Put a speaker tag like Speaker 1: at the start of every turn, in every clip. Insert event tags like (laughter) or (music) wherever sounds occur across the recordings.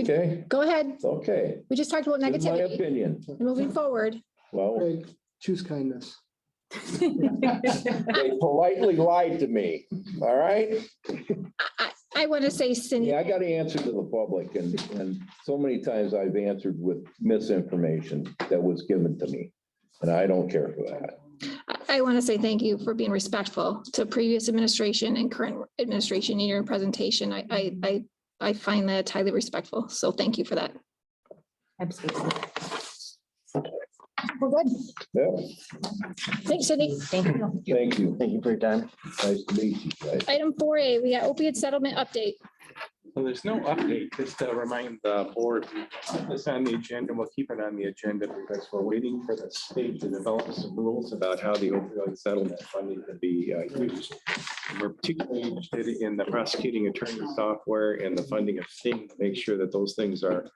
Speaker 1: Okay,
Speaker 2: Go ahead.
Speaker 1: okay.
Speaker 2: We just talked about
Speaker 1: This is My
Speaker 2: negativity.
Speaker 1: opinion.
Speaker 2: Moving forward.
Speaker 1: Well,
Speaker 3: Greg, choose kindness.
Speaker 1: they politely lied to me, all right?
Speaker 2: I, I want to say Cindy,
Speaker 1: Yeah, I got to answer to the public and, and so many times I've answered with misinformation that was given to me. And I don't care for that.
Speaker 2: I- I want to say thank you for being respectful to previous administration and current administration in your presentation. I, I, I, I find that highly respectful. So thank you for that.
Speaker 4: Absolutely.
Speaker 2: We're good.
Speaker 1: Yeah,
Speaker 2: Thanks, Cindy.
Speaker 4: Thank you.
Speaker 1: thank you.
Speaker 5: Thank you for your time.
Speaker 1: Nice to meet you guys.
Speaker 2: Item four A, we got opiate settlement update.
Speaker 6: Well, there's no update, just to remind the board, we put this on the agenda, we'll keep it on the agenda because we're waiting for the state to develop some rules about how the opioid settlement funding can be uh, used. We're particularly interested in the prosecuting attorney software and the funding of STING to make sure that those things are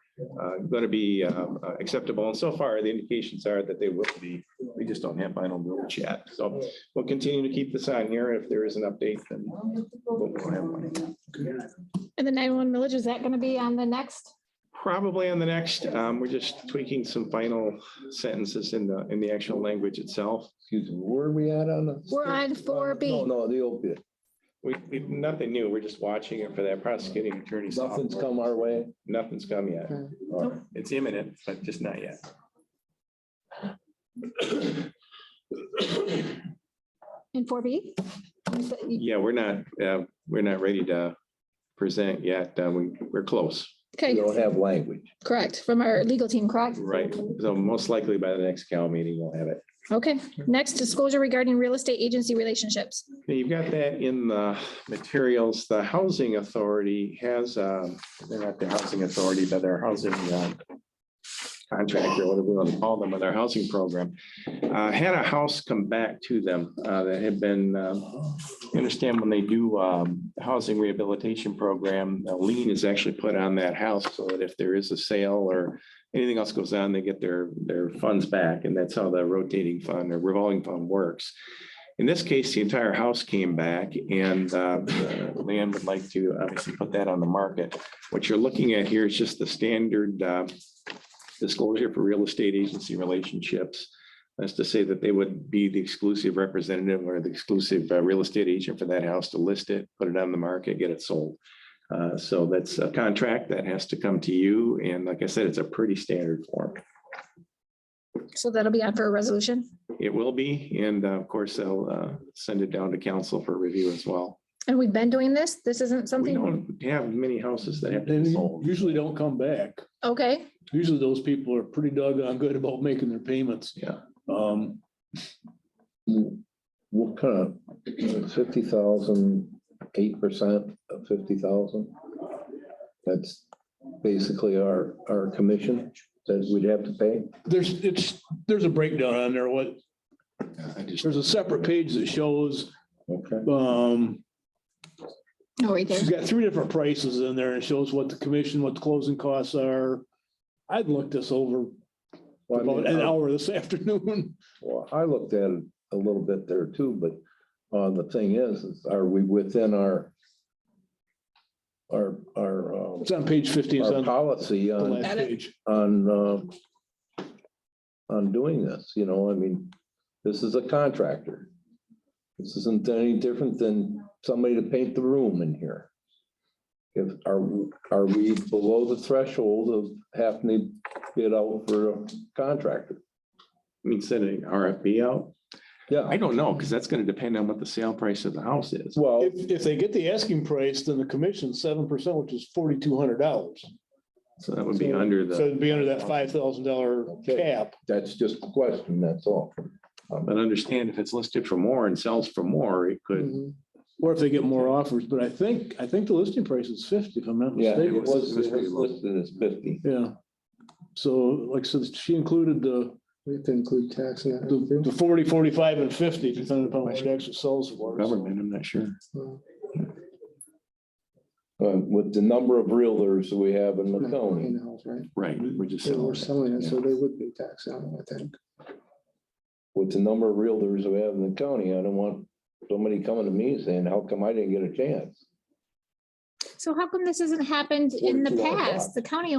Speaker 6: going to be um, uh, acceptable. And so far, the indications are that they will be. We just don't have final rules yet. So we'll continue to keep this on here. If there is an update, then we'll we'll have one.
Speaker 2: And the nine-one millage, is that going to be on the next?
Speaker 6: Probably on the next, um, we're just tweaking some final sentences in the, in the actual language itself.
Speaker 1: Excuse me, where are we at on the?
Speaker 2: We're on four
Speaker 1: No,
Speaker 2: B.
Speaker 1: no, the opiate.
Speaker 6: We, we, nothing new, we're just watching it for that prosecuting attorney.
Speaker 1: Nothing's
Speaker 6: software.
Speaker 1: come our way.
Speaker 6: Nothing's come yet.
Speaker 1: All right.
Speaker 6: It's imminent, but just not yet.
Speaker 2: And four B?
Speaker 6: Yeah, we're not, uh, we're not ready to present yet. Uh, we, we're close,
Speaker 1: We
Speaker 2: Okay,
Speaker 1: don't have language.
Speaker 2: correct. From our legal team, correct?
Speaker 6: right? So most likely by the next Cal meeting, we'll have it.
Speaker 2: Okay, next disclosure regarding real estate agency relationships.
Speaker 6: Now, You've got that in the materials. The housing authority has, um, they're not the housing authority, but their housing uh, contractor, whatever we want to call them, but their housing program, uh, had a house come back to them uh, that had been, um, you understand when they do um, housing rehabilitation program, a lien is actually put on that house so that if there is a sale or anything else goes on, they get their, their funds back. And that's how the rotating fund or revolving fund works. In this case, the entire house came back and uh, the land would like to obviously put that on the market. What you're looking at here is just the standard uh, disclosure for real estate agency relationships. That's to say that they would be the exclusive representative or the exclusive uh, real estate agent for that house to list it, put it on the market, get it sold. Uh, So that's a contract that has to come to you. And like I said, it's a pretty standard form.
Speaker 2: So that'll be on for a resolution.
Speaker 6: It will be, and uh, of course, they'll uh, send it down to council for review as well.
Speaker 2: And we've been doing this. This isn't
Speaker 6: We
Speaker 2: something,
Speaker 6: don't have many houses that have
Speaker 7: They
Speaker 6: been sold.
Speaker 7: usually don't come back.
Speaker 2: okay,
Speaker 7: Usually those people are pretty doggone good about making their payments.
Speaker 6: Yeah.
Speaker 7: Um,
Speaker 1: What kind of, fifty thousand, eight percent of fifty thousand? That's basically our, our commission that we'd have to pay.
Speaker 7: there's, it's, there's a breakdown on there. What,
Speaker 6: I just-
Speaker 7: there's a separate page that shows,
Speaker 1: Okay.
Speaker 7: um,
Speaker 2: no, right there.
Speaker 7: she's got three different prices in there and it shows what the commission, what the closing costs are. I've looked this over
Speaker 1: Well, I
Speaker 7: about
Speaker 1: mean,
Speaker 7: an
Speaker 1: I-
Speaker 7: hour this (laughs) afternoon.
Speaker 1: well, I looked at it a little bit there too, but uh, the thing is, is are we within our our, our, uh,
Speaker 7: It's on page fifteen, it's
Speaker 1: our
Speaker 7: on the
Speaker 1: policy on,
Speaker 7: last page.
Speaker 1: on uh, on doing this, you know, I mean, this is a contractor. This isn't any different than somebody to paint the room in here. If, are, are we below the threshold of having to bid out for a contractor?
Speaker 6: I mean, sending RFP out. I
Speaker 1: Yeah,
Speaker 6: don't know, because that's going to depend on what the sale price of the house is.
Speaker 1: well,
Speaker 7: If, if they get the asking price, then the commission's seven percent, which is forty-two hundred dollars.
Speaker 6: So that would be under
Speaker 7: So
Speaker 6: the,
Speaker 7: it'd be under that five thousand dollar
Speaker 1: Okay.
Speaker 7: cap.
Speaker 1: that's just a question, that's all.
Speaker 6: but understand if it's listed for more and sells for more, it could.
Speaker 3: Mm-hmm.
Speaker 7: Or if they get more offers, but I think, I think the listing price is fifty, if I'm not
Speaker 1: Yeah, it
Speaker 7: mistaken.
Speaker 1: was, it was listed as fifty.
Speaker 7: Yeah. So like, so she included the,
Speaker 3: We have to include tax in that.
Speaker 7: the the forty, forty-five and fifty, depending upon what she actually sells for.
Speaker 6: Government, I'm not sure.
Speaker 3: too.
Speaker 1: Uh, With the number of realtors we have in the county.
Speaker 3: In-house, right?
Speaker 6: Right, Mm. we're just
Speaker 3: They
Speaker 6: selling.
Speaker 3: were selling it, so
Speaker 6: Yeah.
Speaker 3: they would be taxed on it, I think.
Speaker 1: with the number of realtors we have in the county, I don't want somebody coming to me saying, how come I didn't get a chance?
Speaker 2: So how come this hasn't happened in the past? The county